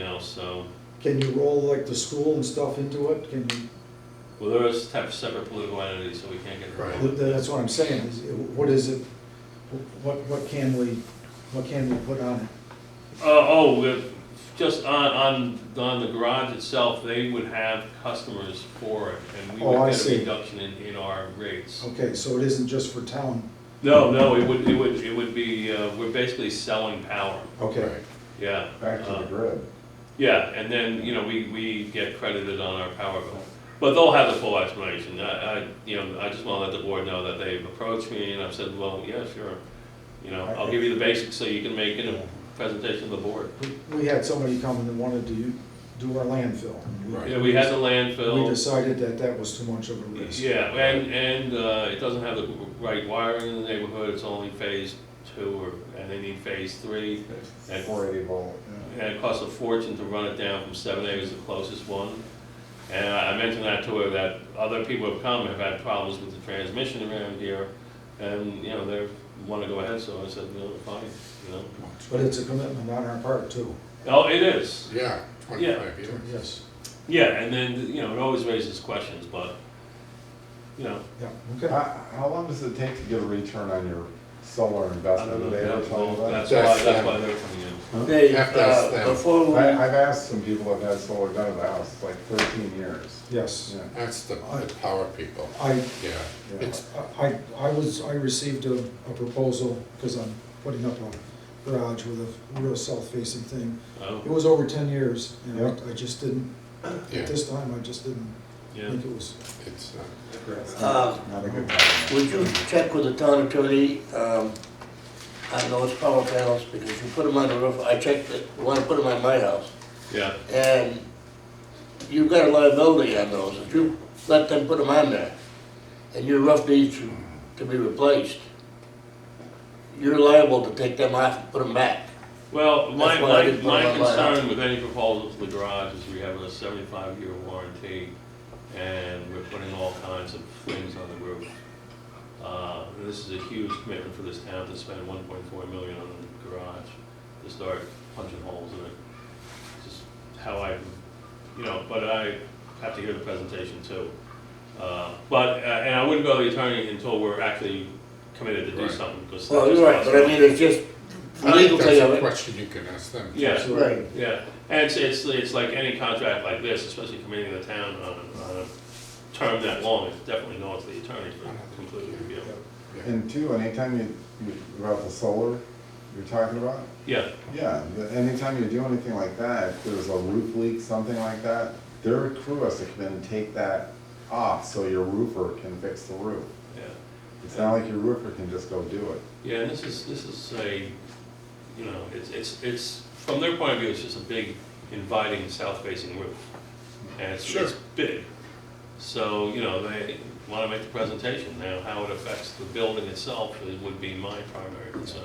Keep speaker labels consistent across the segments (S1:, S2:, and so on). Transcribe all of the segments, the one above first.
S1: else, so,
S2: Can you roll like the school and stuff into it? Can you,
S1: well, they're a type of separate political entity, so we can't get
S3: Right.
S1: involved.
S2: that's what I'm saying, is, what is it, what, what can we, what can we put on it?
S1: Uh, oh, with- just on, on, on the garage itself, they would have customers for it, and we
S2: Oh, I
S1: would get a
S2: see. Oh.
S1: reduction in, in our rates.
S2: Okay, so it isn't just for town,
S1: No, no, it would, it would, it would be, uh, we're basically selling power,
S2: okay.
S3: Right.
S1: yeah.
S4: back to
S1: Uh,
S4: the grid.
S1: Yeah, and then, you know, we, we get credited on our power bill. But they'll have the full explanation. I, I, you know, I just wanna let the board know that they've approached me and I've said, well, yeah, sure. You know, I'll give you the basics so you can make it a presentation to the board.
S2: We- We had somebody come and wanted to u- do our landfill. and we-
S3: Right.
S1: Yeah, we had the
S2: We
S1: landfill.
S2: decided that that was too much of a risk.
S1: Yeah, and, and, uh, it doesn't have the right wiring in the neighborhood. It's only phase two or, and they need phase three. And-
S4: Four eighty volt.
S1: And it costs a fortune to run it down from seven A was the closest one. And I I mentioned that to her, that other people have come, have had problems with the transmission around here, and, you know, they wanna go ahead, so I said, no, fine, you know.
S2: But it's a commitment on our part too,
S1: Oh, it is,
S3: Yeah, twenty-five years.
S2: yes,
S1: yeah, and then, you know, it always raises questions, but, you know,
S2: yeah,
S3: Uh,
S2: okay.
S4: How, how long does it take to get a return on your solar
S1: I don't
S4: investment?
S1: know,
S4: Did they ever
S1: that's
S4: tell you that?
S1: why, that's why they're coming in.
S5: Hey,
S3: Have to ask
S5: uh,
S3: them.
S5: before we,
S4: I, I've asked some people who've had solar done at the house, it's like thirteen years.
S2: Yes,
S4: Yeah,
S3: That's the, the power people,
S2: I,
S3: yeah.
S4: yeah.
S3: It's,
S2: I, I was, I received a, a proposal, because I'm putting up a garage with a real south-facing thing. It
S1: Oh,
S2: was over ten years, and
S4: Yeah.
S2: I, I just didn't,
S3: yeah,
S2: at this time, I just didn't
S1: yeah,
S2: think it was,
S3: it's, uh,
S5: uh,
S4: Not a good time.
S5: would you check with the town attorney, um, on those power panels, because you put them on the roof, I checked it, when I put them on my house,
S1: yeah,
S5: and you've got a liability on those, if you let them put them on there, and your roof needs to- to be replaced, you're liable to take them off and put them back.
S1: well, my,
S5: That's why I
S1: my,
S5: didn't put
S1: my
S5: it on my house.
S1: concern with any proposal to the garage is we have a seventy-five year warranty, and we're putting all kinds of things on the roof. Uh, This is a huge commitment for this town to spend one point four million on the garage, to start punching holes in it. It's Just how I, you know, but I have to hear the presentation too. Uh, But, uh, and I wouldn't go to the attorney until we're actually committed to do
S3: Right.
S1: something, because.
S5: Well, you're right, but I mean, it's just
S3: I think
S5: legally,
S3: that's a
S5: of it.
S3: question you can ask them.
S1: Yeah.
S5: right.
S1: Yeah, and it's, it's, it's like any contract like this, especially committing the town on, on a term that long, it's definitely not to the attorney for complete review.
S3: Yeah.
S4: And two, anytime you, you, about the solar you're talking about,
S1: Yeah,
S4: yeah, the- anytime you do anything like that, if there's a roof leak, something like that, their crew has to come in and take that off so your roofer can fix the roof.
S1: yeah,
S4: It's not like your roofer can just go do it.
S1: yeah, and this is, this is a, you know, it's, it's, it's, from their point of view, it's just a big inviting south-facing roof. And it's, it's
S3: Sure.
S1: big, so, you know, they wanna make the presentation now, how it affects the building itself is- would be my primary concern.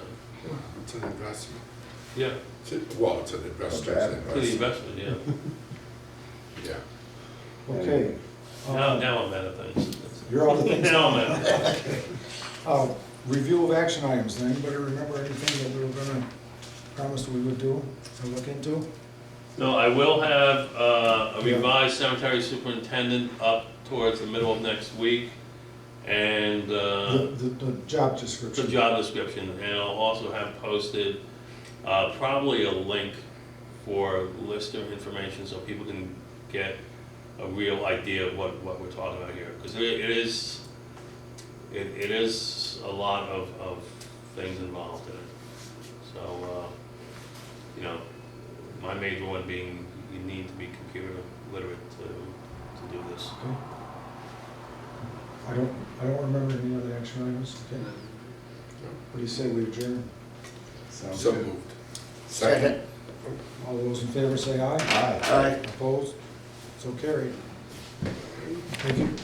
S3: It's an investment.
S1: Yeah,
S3: It's a- Well, it's an investor's
S4: bad.
S1: to the
S3: investment,
S1: investment, yeah,
S3: yeah.
S2: okay. Um,
S1: now, now I'm out of things.
S2: You're all the things.
S1: Now I'm out of things.
S2: Uh, Review of action items, does anybody remember anything that we were gonna promise we would do or look into?
S1: No, I will have uh, a revised cemetery superintendent up towards the middle of next week, and uh,
S2: The, the, the job
S1: the
S2: description.
S1: job description, and I'll also have posted uh, probably a link for lister information, so people can get a real idea of what, what we're talking about here, because it it is, it it is a lot of, of things involved in it. So, uh, you know, my major one being, you need to be computer literate to, to do this.
S2: Okay. I don't, I don't remember any other action items, okay. What do you say, we adjourn?
S4: Sounds
S3: So
S4: good.
S3: moved.
S5: Second,
S2: All those in
S1: uh,
S2: favor say aye.
S4: Aye.
S5: aye.
S2: Opposed? So carried. Thank you.